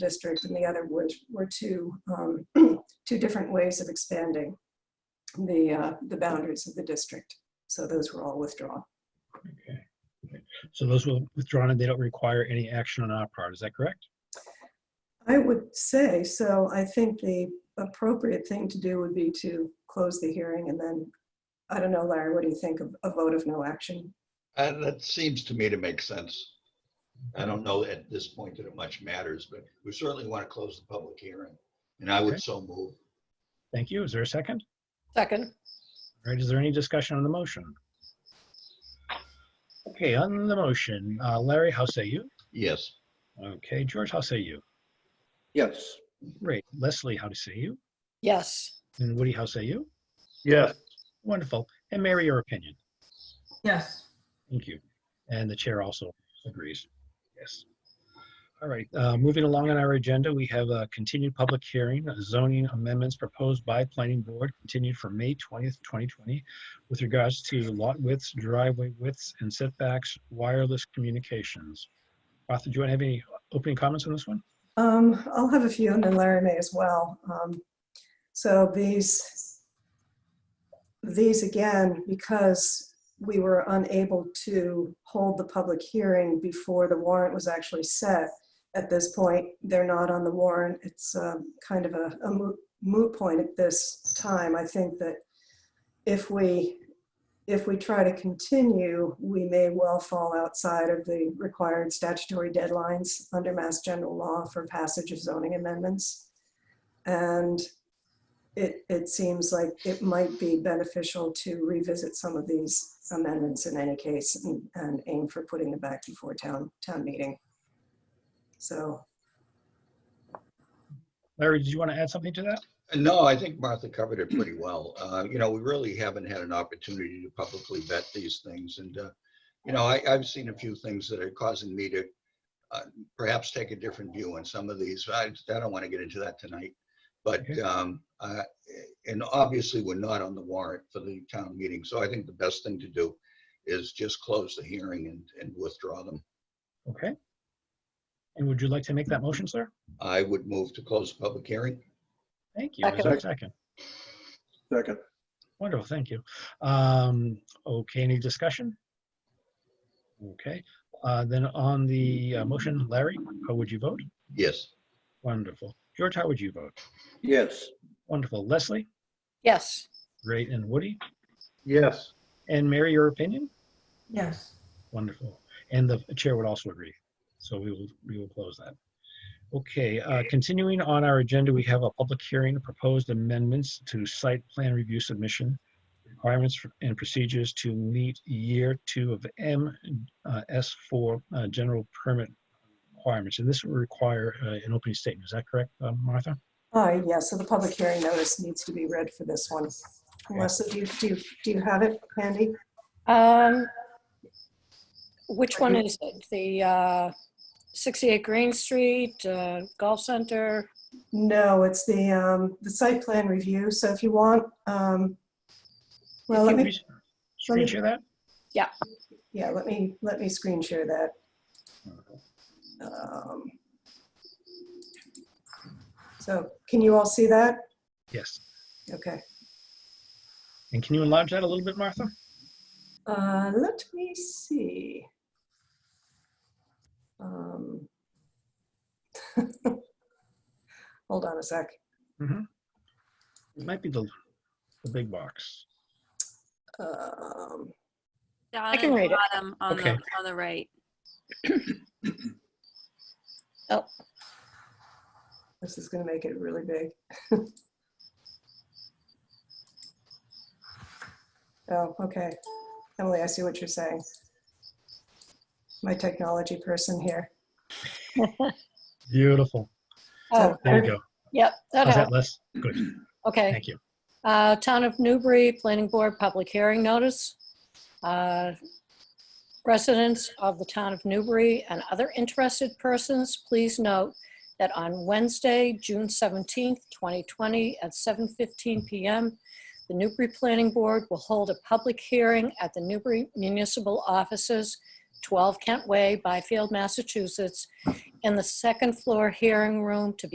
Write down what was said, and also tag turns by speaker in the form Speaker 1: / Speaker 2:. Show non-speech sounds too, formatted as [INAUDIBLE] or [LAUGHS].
Speaker 1: district and the other which were two, um, [CLEARS THROAT] two different ways of expanding the, uh, the boundaries of the district. So those were all withdrawn.
Speaker 2: So those were withdrawn and they don't require any action on our part. Is that correct?
Speaker 1: I would say, so I think the appropriate thing to do would be to close the hearing and then, I don't know, Larry, what do you think of a vote of no action?
Speaker 3: Uh, That seems to me to make sense. I don't know at this point that it much matters, but we certainly want to close the public hearing. And I
Speaker 2: Okay.
Speaker 3: would so move.
Speaker 2: Thank you. Is there a second?
Speaker 4: Second.
Speaker 2: All right, is there any discussion on the motion? Okay, on the motion, uh, Larry, how say you?
Speaker 3: Yes,
Speaker 2: Okay, George, how say you?
Speaker 5: Yes.
Speaker 2: Great. Leslie, how to say you?
Speaker 4: Yes.
Speaker 2: And Woody, how say you?
Speaker 5: Yes.
Speaker 2: Wonderful. And Mary, your opinion?
Speaker 6: Yes.
Speaker 2: Thank you. And the chair also agrees. Yes. All right, uh, moving along on our agenda, we have a continued public hearing, uh, zoning amendments proposed by planning board continued for May 20th, 2020 with regards to lot widths, driveway widths, and setbacks, wireless communications. Martha, do you want to have any opening comments on this one?
Speaker 1: Um, I'll have a few and then Larry may as well. Um, so these, these again, because we were unable to hold the public hearing before the warrant was actually set. At this point, they're not on the warrant. It's, um, kind of a a moot, moot point at this time. I think that if we, if we try to continue, we may well fall outside of the required statutory deadlines under Mass General Law for passage of zoning amendments. And it, it seems like it might be beneficial to revisit some of these amendments in any case and- and aim for putting them back before town, town meeting. So,
Speaker 2: Larry, did you want to add something to that?
Speaker 3: And no, I think Martha covered it pretty well. Uh, You know, we really haven't had an opportunity to publicly vet these things. And, uh, you know, I, I've seen a few things that are causing me to uh, perhaps take a different view on some of these. I, I don't want to get into that tonight. But,
Speaker 2: Okay.
Speaker 3: um, uh, and obviously, we're not on the warrant for the town meeting. So I think the best thing to do is just close the hearing and, and withdraw them.
Speaker 2: Okay. And would you like to make that motion, sir?
Speaker 3: I would move to close the public hearing.
Speaker 2: Thank you. Is there a
Speaker 5: Second.
Speaker 2: Second.
Speaker 5: Second.
Speaker 2: Wonderful, thank you. Um, okay, any discussion? Okay, uh, then on the uh, motion, Larry, how would you vote?
Speaker 3: Yes.
Speaker 2: Wonderful. George, how would you vote?
Speaker 5: Yes.
Speaker 2: Wonderful. Leslie,
Speaker 4: Yes.
Speaker 2: great, and Woody,
Speaker 5: Yes.
Speaker 2: and Mary, your opinion?
Speaker 6: Yes.
Speaker 2: Wonderful. And the chair would also agree. So we will, we will close that. Okay, uh, continuing on our agenda, we have a public hearing, proposed amendments to site plan review submission, requirements for- and procedures to meet year two of M uh, S4 uh, general permit requirements. And this will require uh, an opening statement. Is that correct, uh, Martha?
Speaker 1: uh, yeah, so the public hearing notice needs to be read for this one. Melissa, do you, do you, do you have it handy?
Speaker 4: Um, which one is it? The, uh, 68 Green Street, uh, Golf Center?
Speaker 1: No, it's the, um, the site plan review, so if you want, um, well, let
Speaker 2: Can
Speaker 1: me,
Speaker 2: we Screen share that?
Speaker 1: yeah, let me, let me screen share that. Um, So can you all see that?
Speaker 2: Yes.
Speaker 1: Okay,
Speaker 2: And can you enlarge that a little bit, Martha?
Speaker 1: uh, let me see. Um, [LAUGHS] Hold on a sec.
Speaker 2: It might be the, the big box.
Speaker 1: Um,
Speaker 4: I can read it.
Speaker 7: bottom on the,
Speaker 2: Okay.
Speaker 7: on the right.
Speaker 1: This is gonna make it really big. [LAUGHS] Oh, okay. Emily, I see what you're saying. My technology person here.
Speaker 2: Beautiful.
Speaker 4: Oh,
Speaker 2: There you go.
Speaker 4: yep, that
Speaker 2: How's that,
Speaker 4: helped.
Speaker 2: Les? Good,
Speaker 4: Okay.
Speaker 2: thank you.
Speaker 4: Uh, Town of Newbury Planning Board Public Hearing Notice. Uh, Residents of the Town of Newbury and other interested persons, please note that on Wednesday, June 17th, 2020, at 7:15 PM, the Newbury Planning Board will hold a public hearing at the Newbury Municipal Offices 12 Kent Way, Byfield, Massachusetts, in the second floor hearing room to be